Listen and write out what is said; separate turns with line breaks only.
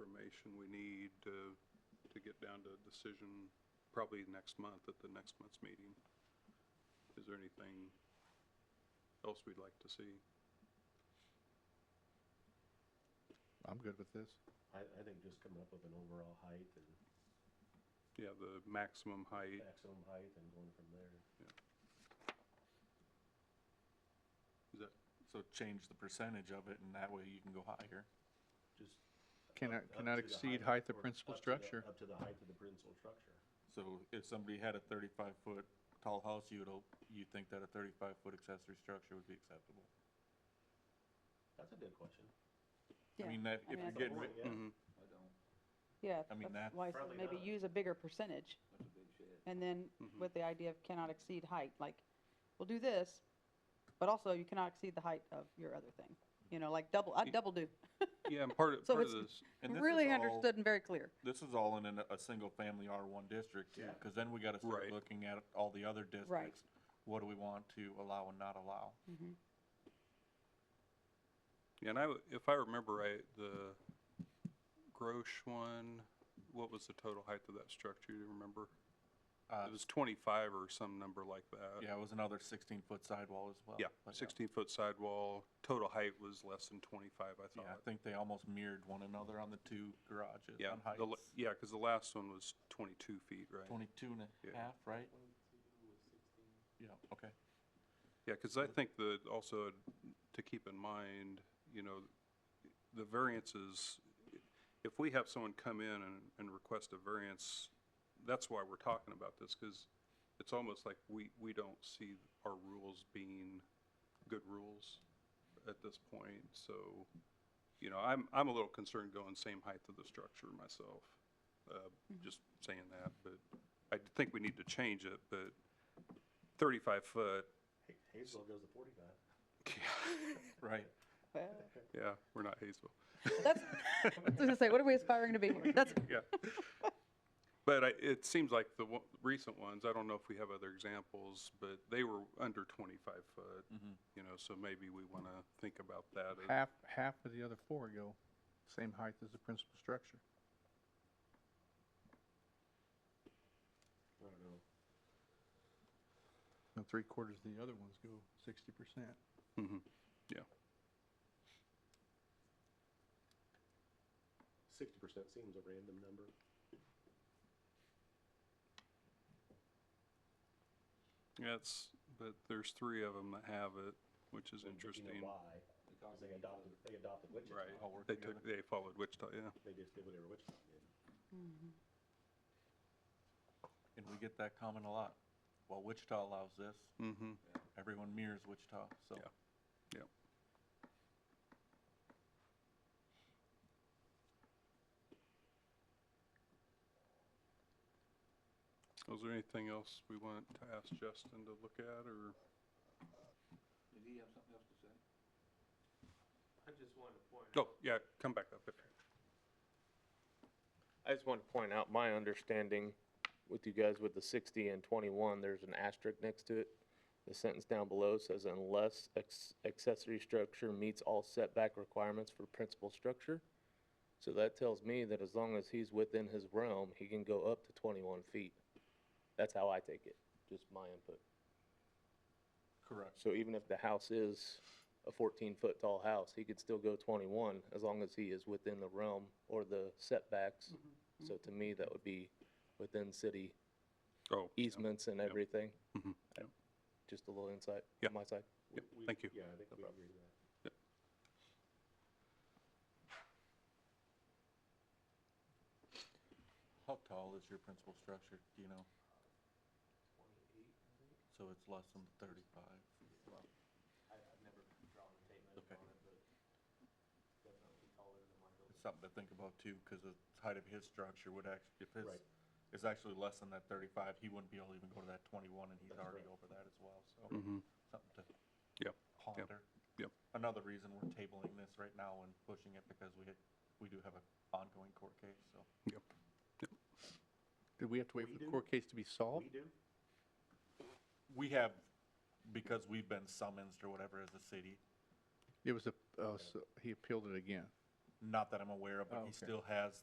information we need to, to get down to a decision probably next month at the next month's meeting. Is there anything else we'd like to see?
I'm good with this.
I, I think just coming up with an overall height and
Yeah, the maximum height,
maximum height and going from there.
is that,
So change the percentage of it and that way you can go higher.
Just.
Cannot,
up- up
cannot
to the
exceed height of
or
principal
up to the-
structure.
Up to the height of the principal structure.
So if somebody had a thirty-five foot tall house, you would, hope- you'd think that a thirty-five foot accessory structure would be acceptable.
That's a good question.
I
Yeah,
mean, that, if
mean,
you're
that's a
getting,
Point,
ri-
yeah.
mhm,
I don't,
Yeah,
I mean, that-
that's why I said
Probably
maybe
not.
use a bigger percentage,
that's a big shed.
and then
Mhm.
Mm-hmm.
with the idea of cannot exceed height, like, we'll do this, but also you cannot exceed the height of your other thing, you know, like double, I
Y-
double do.
yeah, and part of,
So
part of
it's-
this,
and this
Really
is all-
understood and very clear.
This is all in a, a single family R one district too,
Yeah.
cause then we gotta start
Right.
looking at all the other districts. What do we want to allow and not allow?
yeah, and I, w- if I remember right, the Grosh one, what was the total height of that structure, do you remember?
Uh,
It was twenty-five or some number like that.
yeah, it was another sixteen foot sidewall as well. uh,
Yeah,
but
sixteen-foot sidewall, total height was less than twenty-five, I
Yeah, I
thought.
think they almost mirrored one another on the two garages
Yeah,
on
the, la-
heights.
yeah, because the last one was twenty-two feet, right?
Twenty-two and
Yeah.
a half, right? Yeah, okay.
Yeah, because I think that also to keep in mind, you know, the variances, if we have someone come in and, and request a variance, that's why we're talking about this, because it's almost like we, we don't see our rules being good rules at this point, so, you know, I'm, I'm a little concerned going same height of the structure myself, uh, just saying that, but I think we need to change it, but thirty-five foot,
Ha- Hazel goes to forty-five.
Right.
Well,
yeah, we're not Hazel.
That's, I was gonna say, what are we aspiring to be here? That's,
Yeah. But I, it seems like the wo- recent ones, I don't know if we have other examples, but they were under twenty-five foot, you know, so maybe we want to think about that. as-
Half, half of the other four go same height as the principal structure.
I don't know.
And three quarters of the other ones go sixty percent.
Mhm.
Sixty percent seems a random number.
Yeah, it's, but there's three of them that have it, which is
But You
interesting.
know why? Because they adopted, they adopted Wichita.
Right,
all work
they
together.
took, they followed Wichita, yeah.
They just did whatever Wichita did.
And we get that comment a lot. Well, Wichita allows this,
Mm-hmm,
everyone mirrors Wichita, so.
Yeah. yeah. Was there anything else we want to ask Justin to look at, or?
Did he have something else to say?
I just wanted to point
Oh, yeah, come back up. if-
I just want to point out my understanding with you guys with the sixty and twenty-one, there's an asterisk next to it. The sentence down below says unless ex- accessory structure meets all setback requirements for principal structure. So that tells me that as long as he's within his realm, he can go up to twenty-one feet. That's how I take it, just my input.
Correct.
So even if the house is a fourteen foot tall house, he could still go twenty-one as long as he is within the realm or the setbacks. So to me, that would be within city
Oh, yeah.
easements and everything.
Mhm,
I- Just a little insight
Yeah.
on my side.
Yep,
We-
thank you.
Yeah, I think we agree with that.
How tall is your principal structure, do you know? So it's less than thirty-five. Okay. It's something to think about too, cause the height of his structure would actually, if his
Right.
is actually less than that thirty-five, he wouldn't be able to even go to that twenty-one and he's
That's
already
right.
over that as well, so.
Mhm.
Something to
Yep,
ponder.
yep.
Another reason we're tabling this right now and pushing it because we, we do have an ongoing court case, so.
yep.
Did we have to wait
We
for the
do?
court case to be solved?
We do?
We have, because we've been summoned or whatever as a city,
It was a, uh, so he appealed it again.
not that I'm aware of,
Oh,
but
okay.
he still has